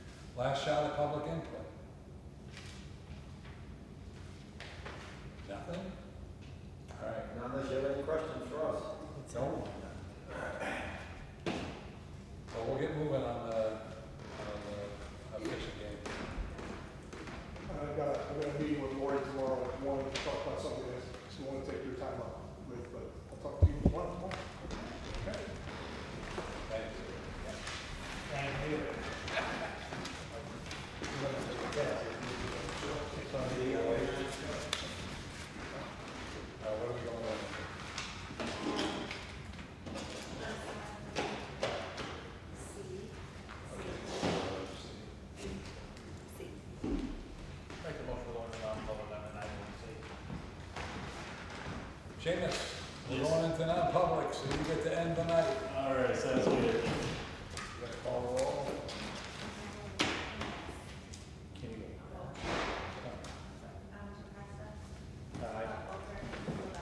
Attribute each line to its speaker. Speaker 1: Last shot of public input. Nothing? All right,
Speaker 2: Not unless you have any questions for us.
Speaker 1: No. Well, we'll get moving on the, on the fishing game.
Speaker 3: I've got, a- I've got a meeting with Lori tomorrow at one to talk about something that she wanted to take your time up with, but I'll talk to you tomorrow. tomorrow.
Speaker 1: Thank you. Uh, what are we going on?
Speaker 4: Make the motion going to non-public on nine one C.
Speaker 1: Seamus, we're
Speaker 5: Yes.
Speaker 1: going into non-public, so you get to end the night.
Speaker 5: All right, sounds good.